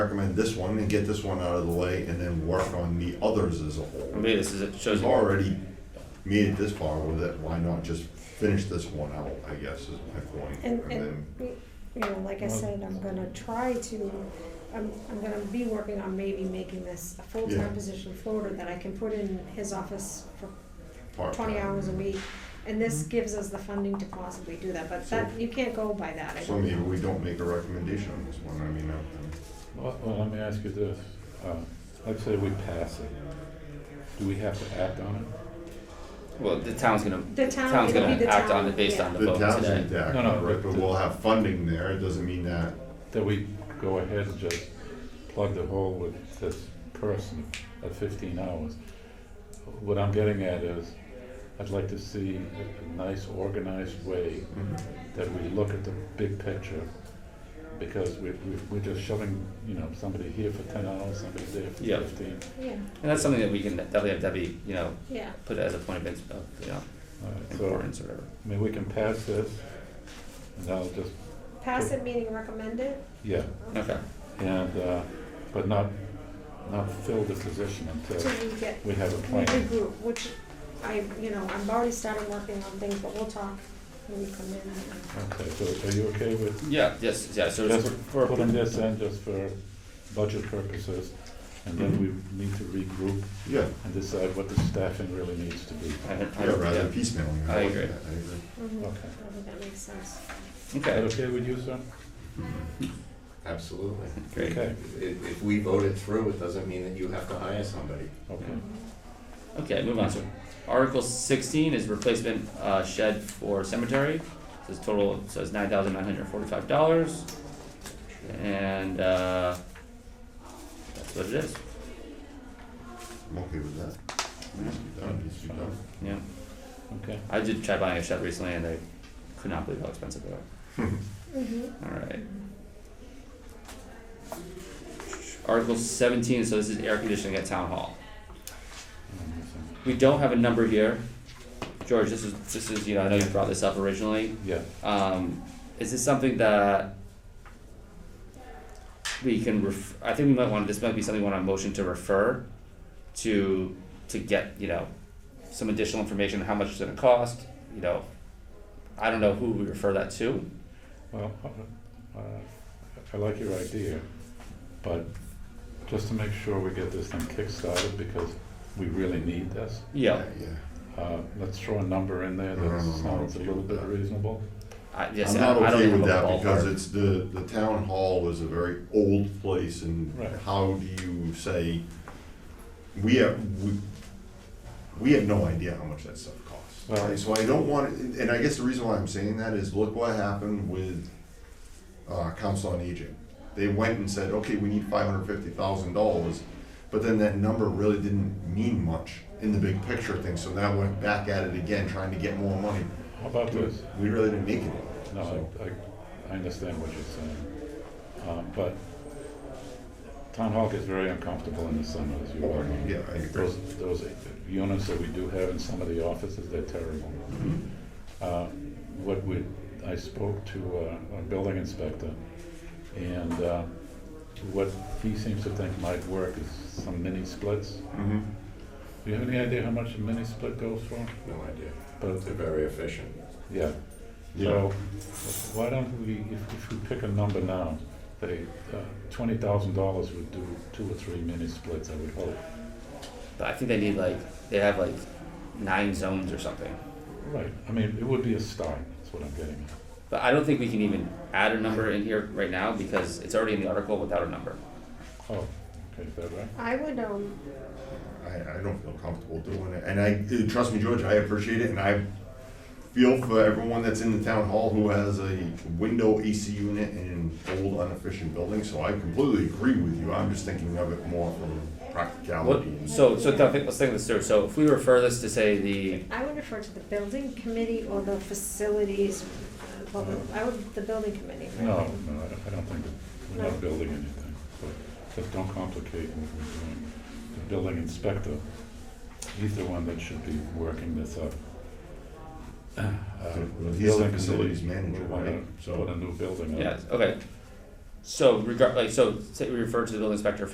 recommend this one and get this one out of the way and then work on the others as a I whole. mean, this is, it shows We've already made it this far with it, why not just finish this one out, I guess, is my point. And, And and, then, you know, like I said, I'm gonna try to, I'm, I'm gonna be working on maybe making this a Yeah. full-time position floater that I can put in his office for twenty part-time. hours a week. And Mm-hmm. this gives us the funding to possibly do that, but that, So- you can't go by that, I So don't maybe we don't make a recommendation on this one, I mean, I- Well, well, let me ask you this. Um, Let's say we pass it. Do we have to act on it? well, the town's gonna, The town- town's it'll gonna be the act on town, it based yeah. on the the vote town's today. in No, no, right, but but- we'll have funding there, it doesn't mean that, That we go ahead and just plug the hole with this person at fifteen hours? What I'm getting at is, I'd like to see a- a nice organized way Mm-hmm. that we look at the big picture. Because we, we, we're just shoving, you know, somebody here for ten hours, somebody there for Yeah. fifteen. yeah, And that's something that we can definitely have Debbie, you know, yeah. put as a point of, ins- of, you know, All right, so, importance or whatever. I mean, we can pass this, and I'll just, Pass it, meaning recommend it, yeah, Okay, and, uh, but not, not fill the position until till we get we have a We plan. regroup, which I, you know, I've already started working on things, but we'll talk when we come in. and- Okay, so are you okay with yeah, yes, yeah, so it's just for, for, putting this in just for budget purposes? And then we need to regroup yeah, and decide what the staffing really needs to be. I, yeah, rather than I, piecemealing. I agree. I agree. Mhm. Okay. I think that makes sense. yeah, Is that okay, okay with you, sir? Mm-hmm. Absolutely. great. Okay, If, if we vote it through, it doesn't mean that you have to hire somebody. okay. Okay, move on. So Article sixteen is replacement uh shed for cemetery. Says total says nine thousand nine hundred forty five dollars. And uh that's what it is. I'm okay with that. Needs to be done, needs to be done. Yeah. Okay. I did try buying a shed recently and I could not believe how expensive they are. Mhm. Alright. Article seventeen, so this is air conditioning at town hall. We don't have a number here. George, this is this is, you know, I know you brought this up originally. Yeah, Um, is this something that we can ref, I think we might want, this might be something we want to motion to refer to, to get, you know, some additional information, on how much it's gonna cost, you know. I don't know who we refer that to, well, uh, I like your idea, but just to make sure we get this thing kickstarted because we really need this. yeah, Yeah. Uh, let's throw a number in there No, no, that no, no, sounds a no. little bit reasonable. I, yes, I'm I I not don't okay even with have a that because ballpark. it's the, the town hall is a very old place and Right. how do you say, we have, we, we have no idea how much that stuff costs. Well- right? So I don't want, and and I guess the reason why I'm saying that is look what happened with, uh, council on aging. They went and said, okay, we need five hundred fifty thousand dollars, but then that number really didn't mean much in the big picture thing, so now went back at it again, trying to get more money. How about this? We really didn't make it. No, I, I, I understand what you're saying, uh, but town hall gets very uncomfortable in the summer, as you all know. Oh, Yeah, I agree. Those, those units that we do have in some of the offices, they're terrible. Uh, What we, I spoke to uh, a building inspector, and uh, what he seems to think might work is some mini splits. Mm-hmm. Do you have any idea how much a mini split goes for? No idea. But, They're very efficient. yeah, so, why don't we, if, if we pick a number now, they, twenty thousand dollars would do two or three mini splits, I would hope. But I think they need like, they have like nine zones or something. Right, I mean, it would be a start, that's what I'm getting But I don't think we can even add a number in here right now because it's already in the article without a number. at. Oh, okay, is that right? I would, um, I, I don't feel comfortable doing it, and I, dude, trust me, George, I appreciate it, and I feel for everyone that's in the town hall who has a window AC unit in an old inefficient building, so I completely agree with you, I'm just thinking of it more from What, practicality. and- so, so th- let's think of this through, so if we refer this to say the, I would refer to the building committee or the facilities, uh, well, the- I would, the building committee. right? No, no, I don't, I don't think, that- we're not building anything, but just don't complicate what we're doing. The building inspector, he's the one that should be working this up. Uh, He's the building facilities committee, manager, we wanna right? So- Put a new building up. yeah, okay. So regard, like, so say we refer to the building inspector